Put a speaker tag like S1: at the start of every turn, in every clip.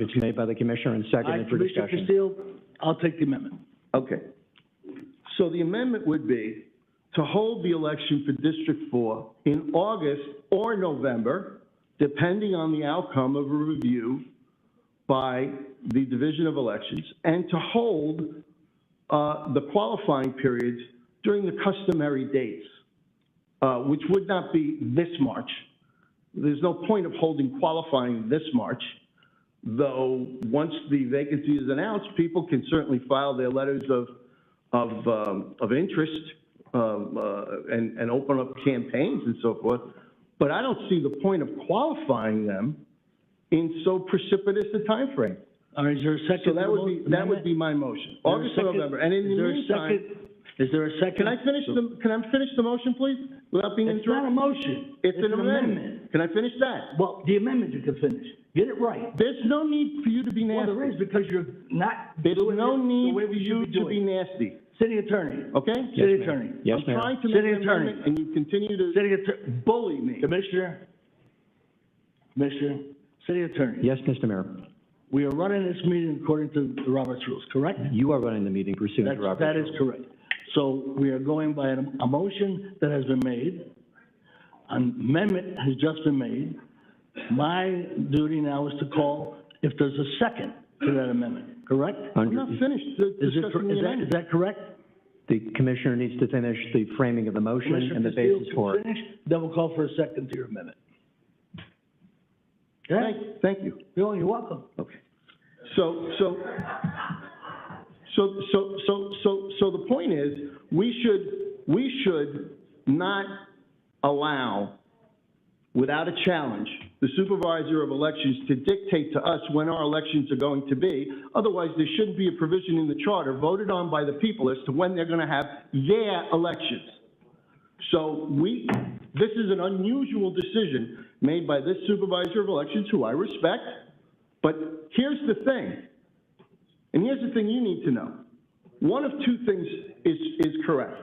S1: It's made by the commissioner and
S2: I,
S1: seconded for
S2: Commissioner
S1: discussion.
S2: Castillo, I'll take the amendment.
S3: Okay. So the amendment would be to hold the election for District Four in August or November, depending on the outcome of a review by the Division of Elections, and to hold, uh, the qualifying periods during the customary dates, uh, which would not be this March. There's no point of holding qualifying this March though, once the vacancy is announced, people can certainly file their letters of, of, um, of interest, um, uh, and, and open up campaigns and so forth. But I don't see the point of qualifying them in so precipitous a time frame.
S2: All right, is there a second?
S3: So that
S2: to the
S3: would be, that would be my motion,
S2: amendment?
S3: August or November. And in the
S2: Is there a
S3: meantime,
S2: second? Is there a second?
S3: can I finish the, can I finish the motion, please, without being
S2: It's not a
S3: interrupted?
S2: motion.
S3: It's an amendment. Can I finish that?
S2: Well, the amendment you can finish. Get it right.
S3: There's no need for you to be
S2: Well,
S3: nasty.
S2: there is because you're not
S3: There's
S2: doing it
S3: no
S2: the
S3: need
S2: way
S3: for
S2: we should
S3: you
S2: be
S3: to be
S2: doing. it.
S3: nasty,
S2: City attorney,
S3: okay?
S2: city
S1: ma'am.
S2: attorney,
S1: Yes,
S3: I'm
S1: ma'am.
S3: trying to
S2: City
S3: make an
S2: attorney.
S3: amendment, and you continue to
S2: city attorney,
S3: bully me.
S2: commissioner, commissioner, city attorney.
S1: Yes, Mr. Mayor,
S2: We are running this meeting according to the Robert's rules, correct?
S1: you are running the meeting pursuant
S2: That's,
S1: to Robert's
S2: that is correct. So we are going by a, a motion that has been made. An amendment has just been made. My duty now is to call if there's a second to that amendment, correct?
S3: I'm not
S1: Under-
S3: finished di-
S2: Is it,
S3: discussing
S2: is
S3: the
S2: that, is
S3: amendment.
S2: that correct?
S1: The commissioner needs to finish the framing of the motion and the
S2: Commissioner
S1: basis
S2: Castillo
S1: for
S2: can
S1: it.
S2: finish, Then we'll call for a second to your amendment. Okay?
S3: Thank, thank you.
S2: Bill, you're welcome.
S3: Okay. So, so, so, so, so, so, so the point is, we should, we should not allow, without a challenge, the supervisor of elections to dictate to us when our elections are going to be. Otherwise, there shouldn't be a provision in the charter voted on by the people as to when they're gonna have their elections. So we, this is an unusual decision made by this supervisor of elections, who I respect, but here's the thing, and here's the thing you need to know. One of two things is, is correct.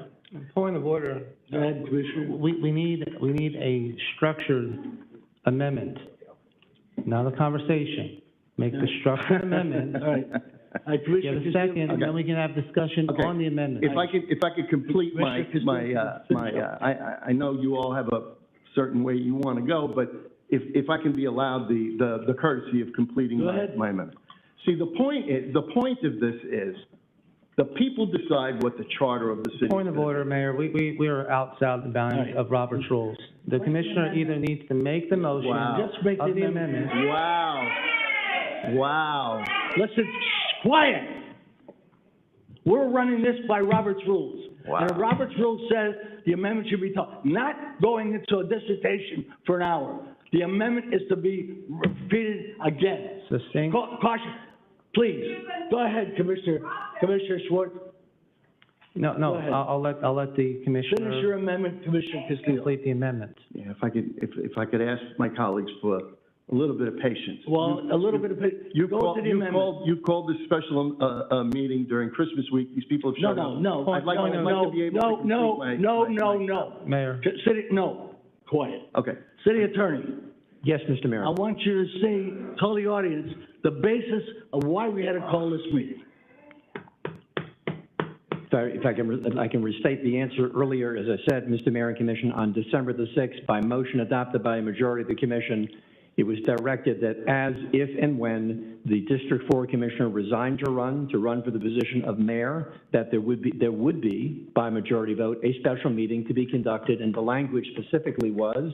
S4: Point of order,
S2: Go ahead, Commissioner.
S4: we, we need, we need a structured amendment, not a conversation. Make the structured amendment,
S2: All right. All right,
S4: get
S2: Commissioner
S4: a
S2: Castillo.
S4: second, and then we can have discussion
S3: Okay.
S4: on the amendment.
S3: If I could, if I could complete my, my, uh, my, uh, I, I, I know you all have a certain way you want to go, but if, if I can be allowed the, the- the courtesy of completing
S2: Go
S3: my,
S2: ahead.
S3: my amendment. See, the point is, the point of this is, the people decide what the charter of the city.
S4: Point of order, Mayor, we, we, we are outside the bounds of Robert's rules. The commissioner either needs to make the motion
S3: Wow.
S2: Just make
S4: of
S2: the
S4: the amendment.
S3: Wow. Wow.
S2: Listen, shh, quiet. We're running this by Robert's rules. And if Robert's rule says the amendment should be taught, not going into a dissertation for an hour. The amendment is to be repeated again.
S4: Sustained.
S2: Ca- Caution, please. Go ahead, Commissioner, Commissioner Schwartz.
S4: No, no,
S2: Go ahead.
S4: I'll, I'll let, I'll let the
S2: Finish
S4: commissioner
S2: your amendment, Commissioner Castillo.
S4: complete the amendment.
S3: Yeah, if I could, if, if I could ask my colleagues for a little bit of patience.
S2: Well, a little bit of,
S3: You
S2: go
S3: called,
S2: to the
S3: you
S2: amendment.
S3: called, you called this special, uh, uh, meeting during Christmas week. These people have
S2: No,
S3: shut
S2: no,
S3: up.
S2: no,
S3: I'd like,
S2: no,
S3: I'd like to be able to
S2: no,
S3: complete
S2: no,
S3: my-
S2: no,
S3: my-
S2: no,
S3: my-
S2: no.
S4: Mayor,
S2: City, no, quiet.
S3: Okay.
S2: City Attorney.
S1: Yes, Mr. Mayor.
S2: I want you to say, tell the audience, the basis of why we had to call this meeting.
S1: If I- If I can, re- I can restate the answer earlier, as I said, Mr. Mayor and Commission, on December the 6th, by motion adopted by a majority of the commission, it was directed that as, if, and when the District 4 Commissioner resigned to run, to run for the position of mayor, that there would be, there would be, by majority vote, a special meeting to be conducted, and the language specifically was,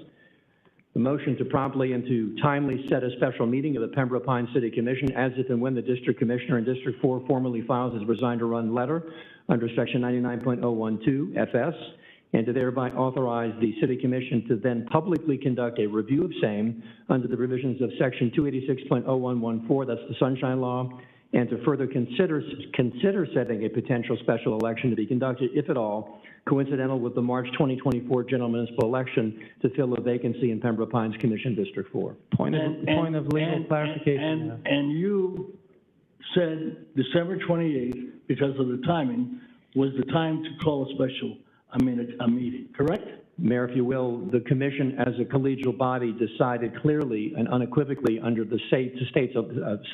S1: the motion to promptly and to timely set a special meeting of the Pembroke Pines City Commission as if and when the district commissioner in District Four formally files his resigned to run letter under section ninety-nine point oh one two FS, and to thereby authorize the city commission to then publicly conduct a review of same under the provisions of section two eighty-six point oh one one four, that's the Sunshine Law, and to further consider, consider setting a potential special election to be conducted, if at all, coincidental with the March 2024 general municipal election to fill a vacancy in Pembroke Pines Commission District 4.
S4: point of,
S2: And-
S4: point
S2: and-
S4: of legal
S2: and-
S4: clarification. Mayor.
S2: And, and you said December twenty-eighth, because of the timing, was the time to call a special, I mean, a, a meeting, correct?
S1: Mayor, if you will, the commission as a collegial body decided clearly and unequivocally under the state, states of, uh,